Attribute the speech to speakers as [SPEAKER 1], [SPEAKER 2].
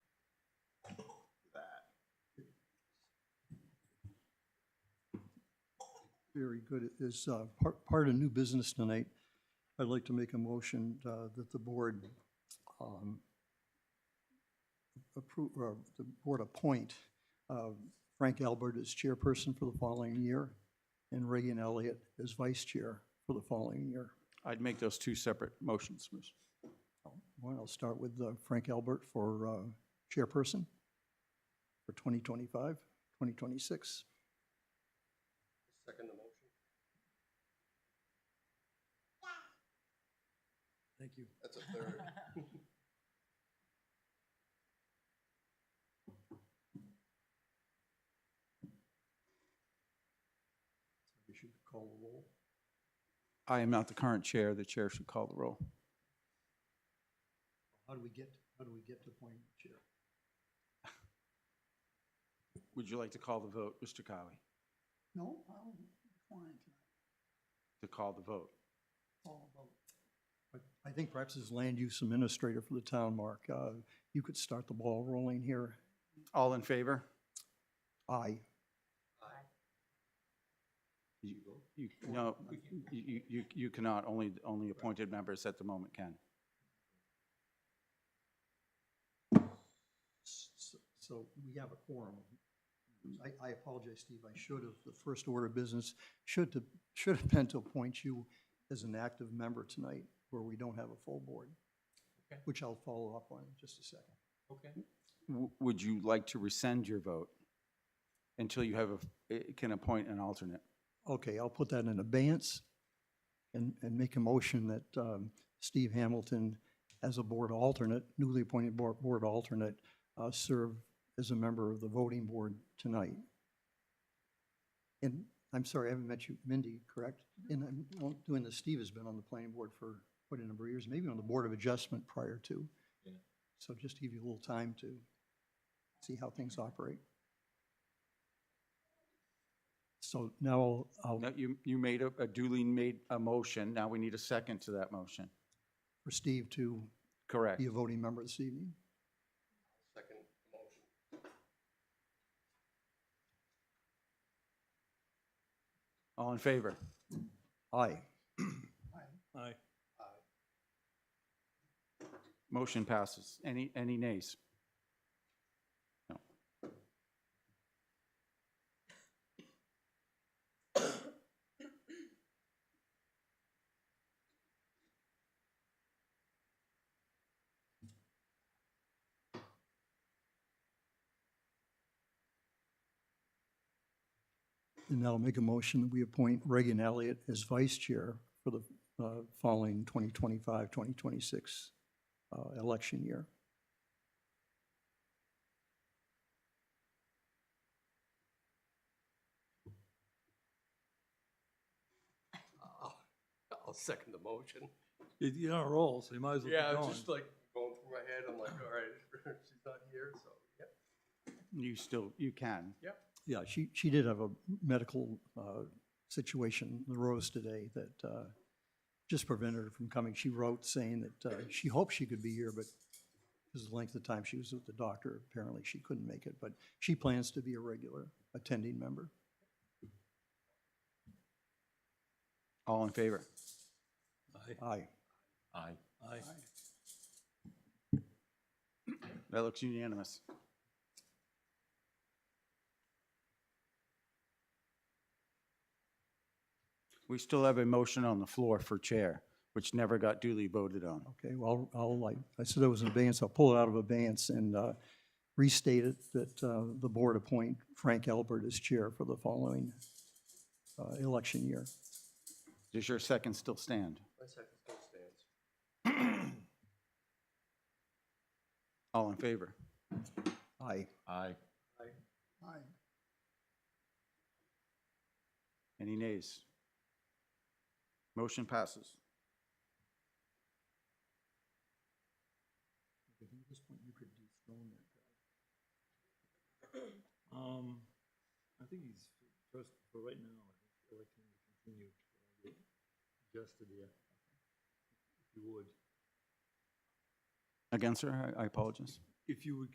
[SPEAKER 1] very good, is uh, par- part of new business tonight. I'd like to make a motion uh, that the board um, approve, or the board appoint uh, Frank Albert as chairperson for the following year and Reagan Elliott as vice chair for the following year.
[SPEAKER 2] I'd make those two separate motions, Ms.
[SPEAKER 1] Well, I'll start with uh, Frank Albert for uh, chairperson for 2025, 2026.
[SPEAKER 3] Thank you.
[SPEAKER 4] That's a third.
[SPEAKER 1] You should call the roll.
[SPEAKER 2] I am not the current chair. The chair should call the roll.
[SPEAKER 1] How do we get, how do we get to point chair?
[SPEAKER 2] Would you like to call the vote, Mr. Colley?
[SPEAKER 5] No, I'm fine tonight,
[SPEAKER 2] To call the vote?
[SPEAKER 5] all about.
[SPEAKER 1] I- I think perhaps as land use administrator for the town, Mark, uh, you could start the ball rolling here.
[SPEAKER 2] All in favor?
[SPEAKER 1] Aye.
[SPEAKER 2] You, you, no, you, you- you, you cannot. Only, only appointed members at the moment can.
[SPEAKER 1] S- So we have a quorum. I, I apologize, Steve, I should have, the first order of business should, to- should have been to appoint you as an active member tonight, where we don't have a full board,
[SPEAKER 3] Okay.
[SPEAKER 1] which I'll follow up on in just a second.
[SPEAKER 3] Okay.
[SPEAKER 2] W- Would you like to rescind your vote until you have, a eh, can appoint an alternate?
[SPEAKER 1] Okay, I'll put that in abeyance and, and make a motion that um, Steve Hamilton, as a board alternate, newly appointed board, board alternate, uh, serve as a member of the voting board tonight. And, I'm sorry, I haven't met you, Mindy, correct? And I'm well, doing this, Steve has been on the planning board for quite a number of years, maybe on the Board of Adjustment prior to.
[SPEAKER 3] Yeah.
[SPEAKER 1] So just to give you a little time to see how things operate. So now I'll- I'll.
[SPEAKER 2] No, you, you made a a duly made a motion. Now we need a second to that motion.
[SPEAKER 1] for Steve to
[SPEAKER 2] Correct.
[SPEAKER 1] be a voting member this evening.
[SPEAKER 4] Second motion.
[SPEAKER 2] All in favor?
[SPEAKER 1] Aye.
[SPEAKER 3] Aye.
[SPEAKER 2] Motion passes. Any, any nays?
[SPEAKER 1] And now I'll make a motion that we appoint Reagan Elliott as vice chair for the uh, following 2025, 2026 uh, election year.
[SPEAKER 4] I'll second the motion.
[SPEAKER 3] You- You're on a roll, so you might as well
[SPEAKER 4] Yeah,
[SPEAKER 3] keep
[SPEAKER 4] it's
[SPEAKER 3] going.
[SPEAKER 4] just like going through my head, I'm like, all right, she's not here, so, yeah.
[SPEAKER 2] You still, you can.
[SPEAKER 1] Yeah, she, she did have a medical uh, situation that arose today that uh, just prevented her from coming. She wrote saying that uh, she hoped she could be here, but because of the length of time she was with the doctor, apparently she couldn't make it. But she plans to be a regular attending member.
[SPEAKER 2] All in favor?
[SPEAKER 3] Aye.
[SPEAKER 1] Aye.
[SPEAKER 4] Aye.
[SPEAKER 3] Aye.
[SPEAKER 2] That looks unanimous. We still have a motion on the floor for chair, which never got duly voted on.
[SPEAKER 1] Okay, well, I'll, like, I said it was in abeyance, I'll pull it out of abeyance and uh, restate it that uh, the board appoint Frank Albert as chair for the following uh, election year.
[SPEAKER 2] Does your second still stand?
[SPEAKER 4] My second still stands.
[SPEAKER 2] All in favor?
[SPEAKER 1] Aye.
[SPEAKER 3] Aye.
[SPEAKER 5] Aye.
[SPEAKER 2] Any nays? Motion passes.
[SPEAKER 3] Um, I think he's, first, for right now, I think I'd like him to continue. to get Adjusted here. If you would,
[SPEAKER 2] Against her, I- I apologize.
[SPEAKER 3] if you would